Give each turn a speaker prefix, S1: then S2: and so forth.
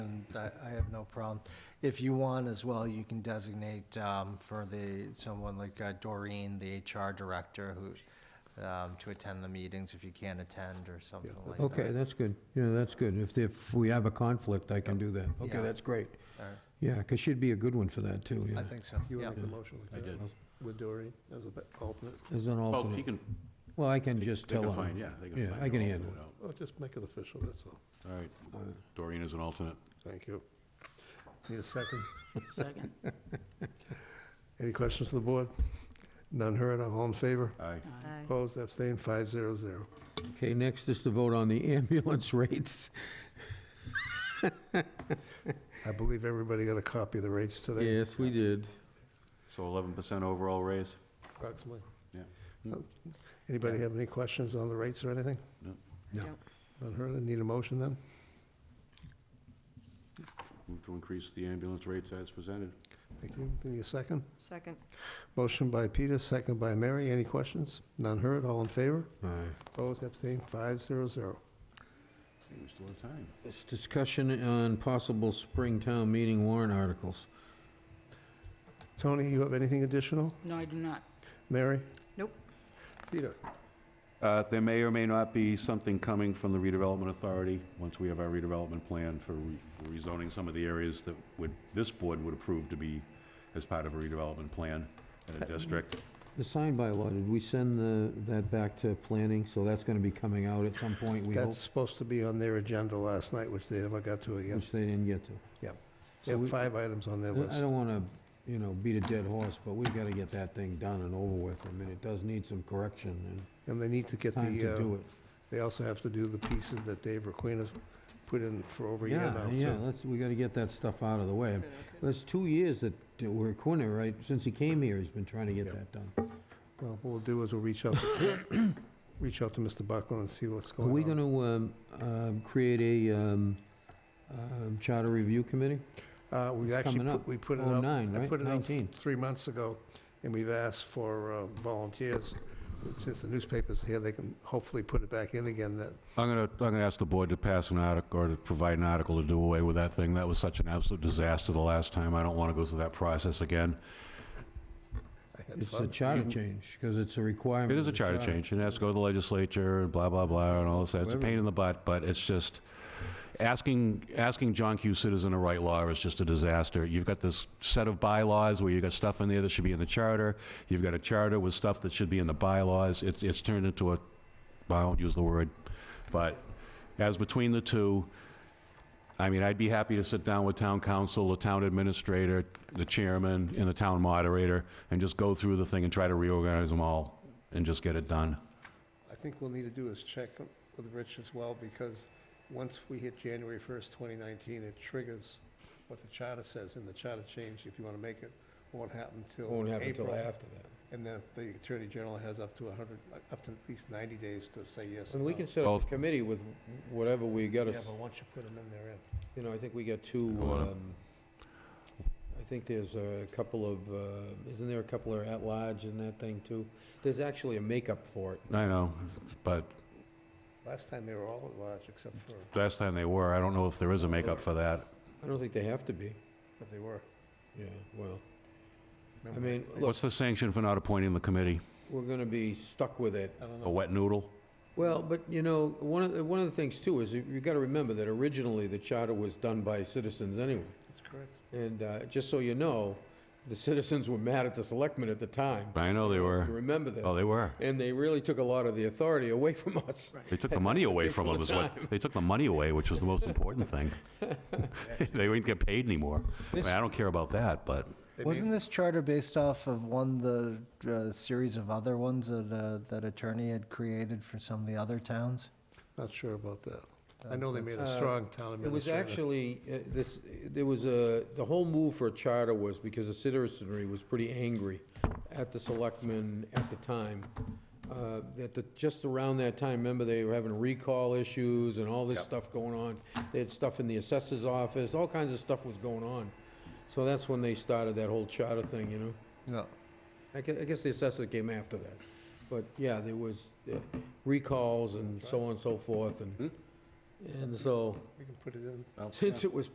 S1: I, I have no problem. If you want as well, you can designate, um, for the, someone like uh, Doreen, the HR director, who, um, to attend the meetings if you can't attend or something like that.
S2: Okay, that's good. Yeah, that's good. If, if we have a conflict, I can do that. Okay,
S1: Yeah.
S2: that's great.
S1: All right.
S2: Yeah, because she'd be a good one for that, too,
S1: I
S2: yeah,
S1: think so,
S3: You
S1: yeah.
S3: want to make a motion like
S4: I
S3: that?
S4: did.
S3: With Dory as the alternate?
S2: as an
S4: Well, Oh, he
S2: alternate.
S4: can,
S2: Well, I can
S4: they
S2: just
S4: they
S2: tell
S4: can find,
S2: her.
S4: yeah, they can
S2: Yeah,
S4: find.
S2: I can
S4: an
S2: handle
S4: alternate out.
S3: Well, just make it official, that's all.
S4: All right,
S2: Uh,
S4: Doreen is an alternate.
S3: Thank you. Need a second?
S5: Second.
S3: Any questions to the board? None heard, all in favor?
S4: Aye.
S5: Aye.
S3: Opposed, abstained, five zero zero.
S2: Okay, next is to vote on the ambulance rates.
S3: I believe everybody got a copy of the rates today.
S2: Yes, we did.
S4: So eleven percent overall raise?
S3: Approximately.
S4: Yeah.
S3: Uh, Anybody have any questions on the rates or anything?
S4: No.
S2: No.
S5: Don't.
S3: None heard, I need a motion then?
S4: Move to increase the ambulance rates as presented.
S3: Thank you, need a second?
S5: Second.
S3: Motion by Peter, second by Mary, any questions? None heard, all in favor?
S2: All right.
S3: Opposed, abstained, five zero zero.
S4: Hey, we still have time.
S2: It's discussion on possible spring town meeting warrant articles.
S3: Tony, you have anything additional?
S5: No, I do not.
S3: Mary?
S5: Nope.
S3: Peter?
S4: Uh, There may or may not be something coming from the redevelopment authority, once we have our redevelopment plan for re- for rezoning some of the areas that would, this board would approve to be as part of a redevelopment plan in a district.
S2: The sign by law, did we send the, that back to planning? So that's going to be coming out at some point, we hope,
S3: That's supposed to be on their agenda last night, which they never got to again.
S2: which they didn't get to.
S3: Yep. They
S2: So we-
S3: have five items on their
S2: I I
S3: list.
S2: don't want to, you know, beat a dead horse, but we've got to get that thing done and over with. I mean, it does need some correction and
S3: And they need to get
S2: time
S3: the,
S2: to
S3: uh,
S2: do it.
S3: they also have to do the pieces that Dave Requena's put in for over a year
S2: Yeah,
S3: now.
S2: yeah,
S3: too.
S2: let's, we got to get that stuff out of the way. That's two years that that we're Quinna, right? Since he came here, he's been trying to get
S3: Yeah.
S2: that done.
S3: Well, what we'll do is we'll reach out, reach out to Mr. Buckland and see what's
S2: Are
S3: going on.
S2: we going to create a um, um, charter review committee?
S3: Uh, we
S2: it's
S3: actually, put-
S2: coming up.
S3: we put it
S2: Oh,
S3: up.
S2: nine,
S3: I
S2: right?
S3: put it up
S2: 19.
S3: three months ago, and we've asked for uh, volunteers. Since the newspaper's here, they can hopefully put it back in again that
S4: I'm gonna, I'm gonna ask the board to pass an article, or to provide an article to do away with that thing. That was such an absolute disaster the last time. I don't want to go through that process again.
S3: I had
S2: It's
S3: fun.
S2: a charter change because it's uh, a requirement.
S4: Mm-hmm. It is a
S2: of the
S4: charter change, and it has to go to the legislature and blah, blah, blah, and all this. It's a pain in the butt, but it's just, asking, asking John Q. Citizen to write law is just a disaster. You've got this set of bylaws where you've got stuff in there that should be in the charter. You've got a charter with stuff that should be in the bylaws. It's, it's turned into a, I won't use the word, but as between the two, I mean, I'd be happy to sit down with town council, the town administrator, the chairman, and the town moderator, and just go through the thing and try to reorganize them all and just get it done.
S3: I think we'll need to do is check with Rich as well, because once we hit January 1st, 2019, it triggers what the charter says, and the charter change, if you want to make it, won't happen till April.
S2: Won't happen until after that.
S3: And then the Attorney General has up to 100, up to at least 90 days to say yes or
S2: And
S3: no.
S2: we can set up
S4: Both.
S2: a committee with whatever we got
S3: Yeah,
S2: to,
S3: but once you put them in, they're in.
S2: you know, I think we got two,
S4: I wanna-
S2: um, I think there's a couple of, uh, isn't there a couple of at-large in that thing too? There's actually a makeup for it.
S4: I know, but
S3: Last time, they were all at large, except for,
S4: last time they were, I don't know if there is a makeup for that.
S2: I don't think they have to be.
S3: but they were.
S2: Yeah, well, I
S3: Remember?
S2: mean, look,
S4: What's the sanction for not appointing the committee?
S2: we're gonna be stuck with it.
S3: I don't
S4: A
S3: know.
S4: wet noodle?
S2: Well, but you know, one of, the- one of the things too is you you gotta remember that originally the charter was done by citizens anyway.
S3: That's correct.
S2: And, uh, just so you know, the citizens were mad at the selectmen at the time.
S4: I know they
S2: If you
S4: were.
S2: remember this.
S4: Oh, they were.
S2: And they really took a lot of the authority away from us.
S4: They took the money away
S2: Take
S4: from
S2: all
S4: them,
S2: the
S4: is what, they took the money away, which was the most important thing. They wouldn't get paid anymore. I mean, I don't care about that, but
S3: They made-
S1: Wasn't this charter based off of one, of the uh, series of other ones that, uh, that attorney had created for some of the other towns?
S3: Not sure about that. I know they made a
S2: Uh,
S3: strong town administrator.
S2: It was actually, uh, this, there was a, the whole move for a charter was because the citizenry was pretty angry at the selectmen at the time. Uh, That the, just around that time, remember, they were having recall issues and all this stuff going on. They had stuff in the assessor's office, all kinds of stuff was going on. So that's when they started that whole charter thing, you know?
S1: No.
S2: I gue- I guess the assessor came after that. But, yeah, there was uh, recalls and so on and so forth, and, and so,
S3: We can put it in.
S2: since it was